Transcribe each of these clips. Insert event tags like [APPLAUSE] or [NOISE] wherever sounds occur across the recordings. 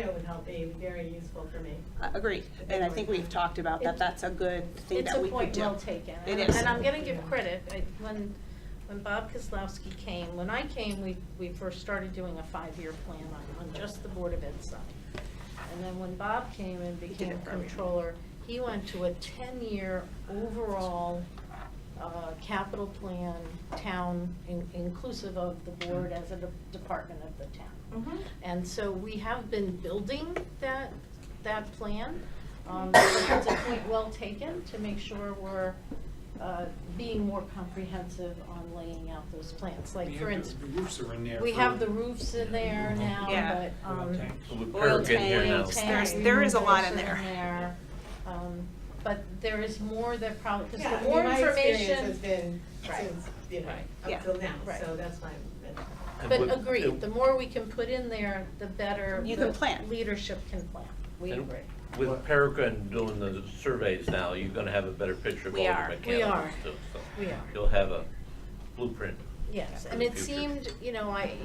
It would help be very useful for me. I Agree, Uh, and I think we've talked about that, that's a good thing It's that a we could point do. well taken. It And- is. And I'm going to give credit, I- when, when Bob Kozlowski came, when I came, we, we first started doing a five-year plan on, on just the Board of Ed side. And then when Bob came and did became it for everyone. controller, he went to a ten-year overall uh, capital plan, town, in- inclusive of the board as a de- department of the town. And so we have been building that, that plan. Um, so It's a point well taken to make sure we're uh, being more comprehensive on laying out those plans. We Like, have for the- instance, The roofs are in there. we for- have the roofs in there now, Yeah. but. um, Oil tank. Well, the Oil parapet here tank, now. tank There's- there is a lot in removals there. there. Um, But there is more that probably, because Yeah, I the mean, more my information. experience has been Right. since, you know, Yeah. up till now, Right. so that's why I'm. And But what- agreed, and- the more we can put in there, the better. You can the plan. Leadership can plan. We and agree. With Peregrine doing the surveys now, you're gonna have a better picture of all We the are. We mechanics. are. too, so We are. You'll have a blueprint. Yes, for and the it future. seemed, you know, I,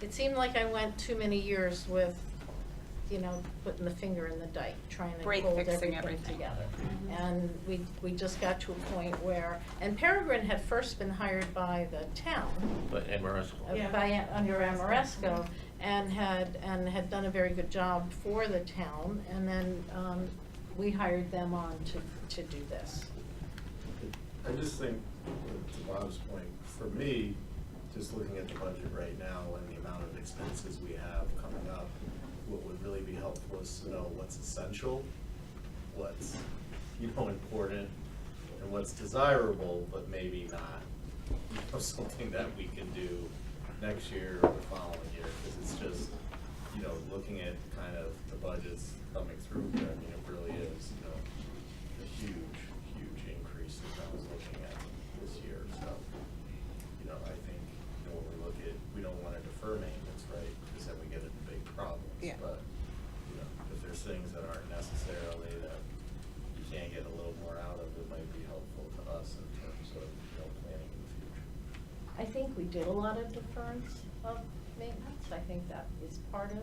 it seemed like I went too many years with, you know, putting the finger in the dike, trying to Break hold fixing everything everything. together. And we, we just got to a point where, and Peregrine had first been hired by the town, But Amoresco. uh, Yeah. by, under Amoresco, and had, and had done a very good job for the town, and then, um, we hired them on to, to do this. I just think, to Bob's point, for me, just looking at the budget right now and the amount of expenses we have coming up, what would really be helpful is to know what's essential, what's, you know, important, and what's desirable, but maybe not, you know, something that we can do next year or the following year, because it's just, you know, looking at kind of the budgets coming through here, I mean, it really is, you know, a huge, huge increase that I was looking at this year, so, you know, I think, you know, when we look at, we don't wanna defer maintenance, right? Because then we get into big problems, Yeah. but, you know, if there's things that aren't necessarily that you can't get a little more out of, it might be helpful to us in terms of, you know, planning in the future. I think we did a lot of deference of maintenance, I think that is part of,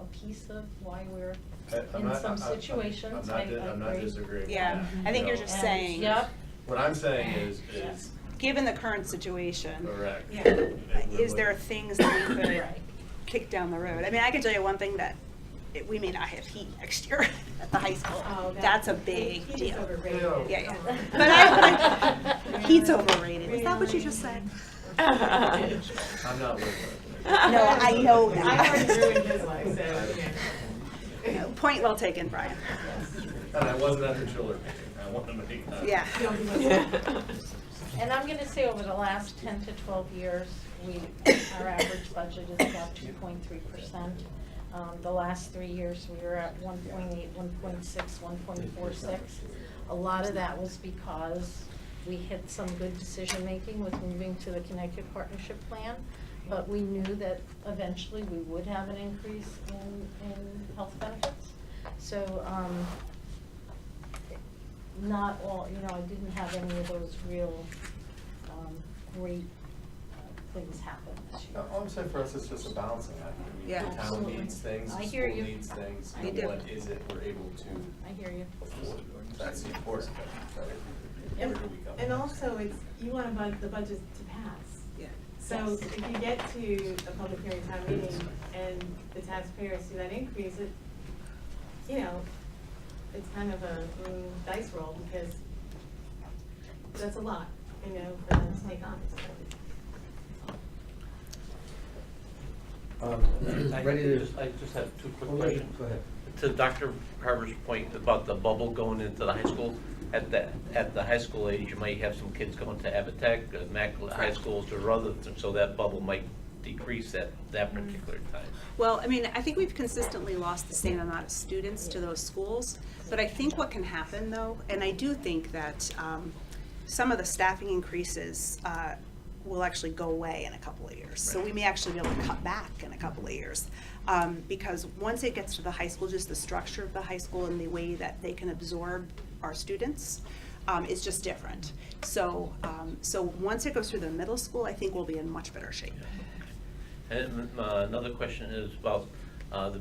a piece of why we're I- I'm in not- some I'm- I'm- situations, I, I I'm agree. not, di- I'm not disagreeing with Yeah, that, I think you you're know, just And- it's saying- Yep, What I'm saying is, is, Given the current situation. correct. Yeah. It would- Is there things that we could Right. kick down the road? I mean, I can tell you one thing that, it- we may not have heat next year [LAUGHS] at the high school. Oh, that- That's a big Heat is deal. overrated. Yeah. Yeah, yeah. Come on. [LAUGHS] But I, but I- [LAUGHS] [LAUGHS] heat's overrated, is that what you just said? I'm not looking at it. [LAUGHS] No, I [LAUGHS] know that. I already ruined his life, so, yeah. No, Point well taken, Brian. And I wasn't at the chiller meeting, I want to make that. Yeah. Don't give us up. [LAUGHS] and I'm gonna say over the last ten to twelve years, we, our average budget is about two point three percent. Um, the last three years, we were at 1.8, 1.6, 1.46. A lot of that was because we hit some good decision-making with moving to the Connecticut Partnership Plan, but we knew that eventually we would have an increase in, in health benefits. So, um, not all, you know, I didn't have any of those real, um, great uh, things happen this year. No, All Oh, I'm saying for us is just a balancing act. I mean, Yeah. The town Absolutely. needs things, I the hear school you. needs things, They and do. what is it we're able to I hear you. afford? That's the important thing, right? And Where do we go? and also, it's, you want a bud- the budget to pass. Yeah. So if you get to a public hearing town meeting and the taxpayers see that increase, it, you know, it's kind of a mm, dice roll because that's a lot, you know, for them to take on. Um, I Ready to, just- I just have two quick Oh, wait, questions. go ahead. To Dr. Carver's point about the bubble going into the high school, at the, at the high school age, you might have some kids going to Avatech, uh, Mac High Schools or other, so that bubble might decrease at that particular time. Well, I mean, I think we've consistently lost the same amount of students to those schools, but I think what can happen though, and I do think that um, some of the staffing increases uh, will actually go away in a couple of years. So we may actually be able to cut back in a couple of years. Um, Because once it gets to the high school, just the structure of the high school and the way that they can absorb our students um, is just different. So, um, so once it goes through the middle school, I think we'll be in much better shape. And uh, another question is about uh, the